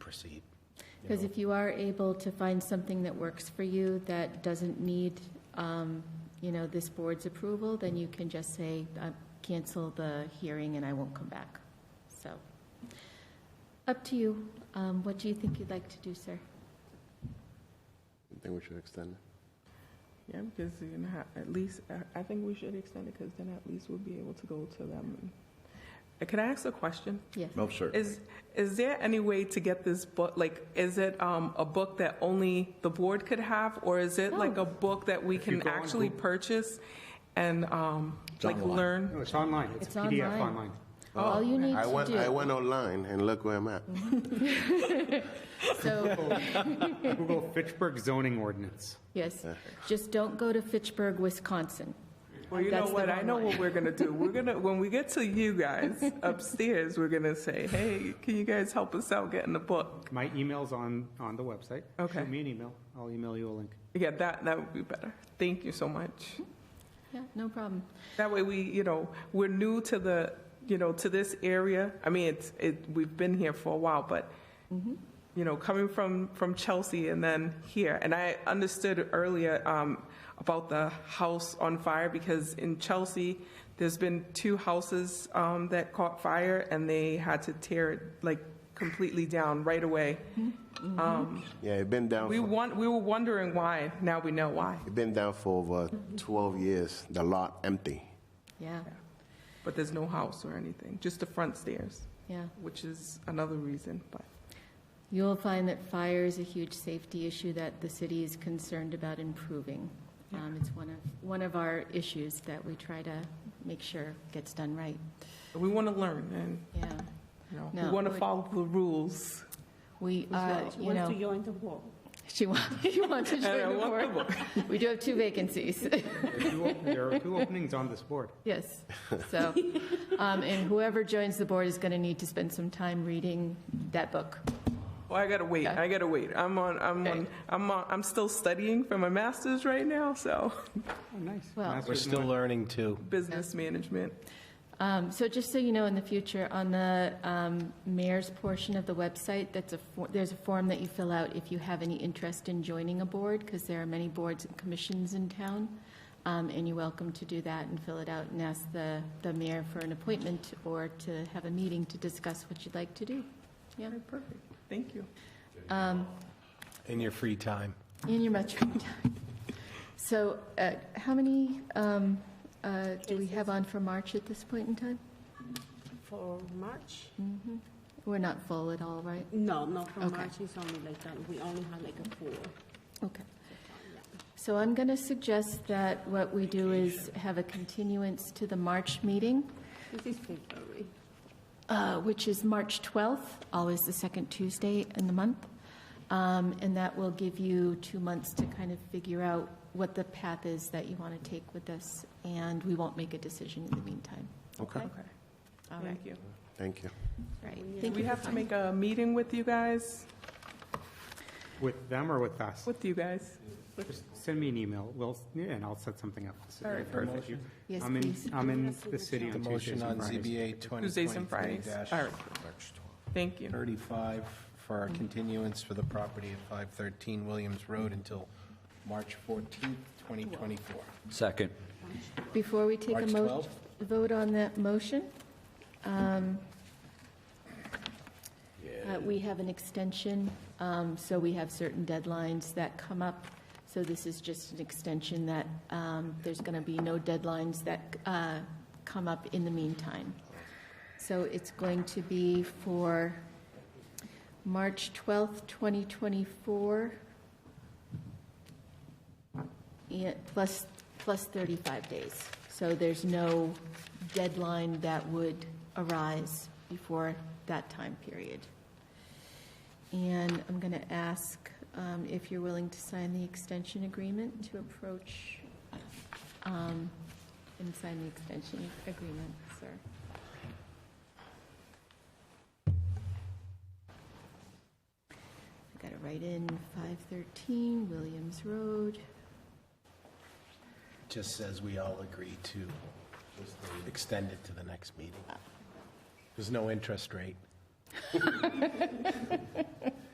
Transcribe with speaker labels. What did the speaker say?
Speaker 1: proceed. you
Speaker 2: Because
Speaker 1: know?
Speaker 2: if you are able to find something that works for you that doesn't need, um, you know, this board's approval, then you can just say, uh, cancel the hearing and I won't come back. So, up to you. Um, What do you think you'd like to do, sir?
Speaker 3: I think we should extend it.
Speaker 4: Yeah, because you know, at least I, I think we should extend it because then at least we'll be able to go to them. Uh, Can I ask a question?
Speaker 2: Yes.
Speaker 1: Oh, sure.
Speaker 4: Is is there any way to get this book? Like, is it um, a book that only the board could have, or is it like
Speaker 2: No.
Speaker 4: a book that we
Speaker 5: If you
Speaker 4: can
Speaker 5: go on
Speaker 4: actually
Speaker 5: Google-
Speaker 4: purchase and um,
Speaker 1: It's
Speaker 4: like
Speaker 1: online.
Speaker 4: learn?
Speaker 5: No, it's online. It's
Speaker 2: It's
Speaker 5: a PDF
Speaker 2: online.
Speaker 5: online.
Speaker 2: All you need
Speaker 3: I
Speaker 2: to
Speaker 3: went, I
Speaker 2: do, Mm-hmm.
Speaker 3: went online and look where I'm at.
Speaker 2: so,
Speaker 5: Google Fitchburg zoning ordinance.
Speaker 2: yes, just don't go to Fitchburg, Wisconsin.
Speaker 4: Well, you
Speaker 2: That's
Speaker 4: know
Speaker 2: the
Speaker 4: what? I
Speaker 2: wrong
Speaker 4: know
Speaker 2: one.
Speaker 4: what we're gonna do. We're gonna when we get to you guys upstairs, we're gonna say, "Hey, can you guys help us out getting the book?"
Speaker 5: My email's on, on the website.
Speaker 4: Okay.
Speaker 5: Shoot me an email. I'll email you a link.
Speaker 4: Yeah, that that would be better. Thank you so much.
Speaker 2: Yeah, no problem.
Speaker 4: That way we, you know, we're new to the, you know, to this area. I mean, it's, it, we've been here for a while, but, you know, coming from, from Chelsea and then here, and I understood earlier um, about the house on fire because in Chelsea, there's been two houses um, that caught fire and they had to tear it like completely down right away. Um,
Speaker 3: Yeah, it's been down,
Speaker 4: We
Speaker 3: for-
Speaker 4: want, we were wondering why, now we know why,
Speaker 3: it been down for over 12 years, the lot empty.
Speaker 2: Yeah,
Speaker 4: but there's no house or anything, just the front stairs.
Speaker 2: yeah.
Speaker 4: which is another reason, but
Speaker 2: You'll find that fire is a huge safety issue that the city is concerned about improving. Um, It's one of, one of our issues that we try to make sure gets done right.
Speaker 4: we want to learn and,
Speaker 2: Yeah,
Speaker 4: you know,
Speaker 2: No,
Speaker 4: we want to
Speaker 2: we-
Speaker 4: follow the rules.
Speaker 2: we, uh,
Speaker 6: She
Speaker 2: you
Speaker 6: wants to
Speaker 2: know,
Speaker 6: join the war.
Speaker 2: she wants, she wants to
Speaker 4: And I
Speaker 2: join the
Speaker 4: want the
Speaker 2: board. We do have two vacancies,
Speaker 5: There are two op- There are two openings on this board.
Speaker 2: yes. So, um, and whoever joins the board is going to need to spend some time reading that book.
Speaker 4: Well, I gotta wait,
Speaker 2: Okay.
Speaker 4: I gotta wait. I'm on, I'm on,
Speaker 2: Okay.
Speaker 4: I'm on, I'm still studying for my master's right now, so,
Speaker 5: Oh, nice.
Speaker 2: Well-
Speaker 5: Masters
Speaker 1: We're
Speaker 5: in
Speaker 1: still
Speaker 5: what?
Speaker 1: learning, too.
Speaker 4: business management.
Speaker 2: Um, So just so you know, in the future, on the um, mayor's portion of the website, that's a, for- there's a form that you fill out if you have any interest in joining a board, because there are many boards and commissions in town, Um, and you're welcome to do that and fill it out and ask the, the mayor for an appointment or to have a meeting to discuss what you'd like to do. Yeah,
Speaker 4: Perfect, thank you.
Speaker 1: In your free time.
Speaker 2: in your much free time. So uh, how many um, uh, do we have on for March at this point in time?
Speaker 6: For March?
Speaker 2: We're not full at all, right?
Speaker 6: No, not for
Speaker 2: Okay.
Speaker 6: March, it's only like that, we only have like a four.
Speaker 2: Okay. So I'm going to suggest that what we do is have a continuance to the March meeting,
Speaker 6: This is February.
Speaker 2: uh, which is March 12th, always the second Tuesday in the month. Um, And that will give you two months to kind of figure out what the path is that you want to take with this, and we won't make a decision in the meantime.
Speaker 3: Okay.
Speaker 4: Okay,
Speaker 2: All right,
Speaker 4: thank you.
Speaker 3: Thank you.
Speaker 2: right.
Speaker 6: We
Speaker 2: Thank
Speaker 4: We
Speaker 2: you for
Speaker 4: have to
Speaker 2: coming.
Speaker 4: make a meeting with you guys,
Speaker 5: With them or with us?
Speaker 4: with you guys.
Speaker 5: Just send me an email. We'll, yeah, and I'll set something up.
Speaker 4: All right, perfect.
Speaker 2: Yes,
Speaker 5: I'm in,
Speaker 2: please.
Speaker 5: I'm in the city
Speaker 1: The
Speaker 5: on Tuesdays
Speaker 1: motion on
Speaker 5: and Fridays.
Speaker 1: ZBA 2023
Speaker 4: Tuesdays and Fridays.
Speaker 1: dash-
Speaker 4: All right.
Speaker 1: March
Speaker 4: Thank
Speaker 1: 12th.
Speaker 4: you.
Speaker 1: 35 for our continuance for the property at 513 Williams Road until March 14th, 2024.
Speaker 7: Second.
Speaker 2: Before we take a
Speaker 1: March
Speaker 2: mo,
Speaker 1: 12th?
Speaker 2: vote on that motion, um, uh, we have an extension, um, so we have certain deadlines that come up. So this is just an extension that um, there's going to be no deadlines that uh, come up in the meantime. So it's going to be for March 12th, 2024, yeah, plus, plus 35 days. So there's no deadline that would arise before that time period. And I'm going to ask um, if you're willing to sign the extension agreement to approach um, and sign the extension agreement, sir. I got it right in, 513 Williams Road.
Speaker 1: Just says we all agree to extend it to the next meeting. There's no interest rate.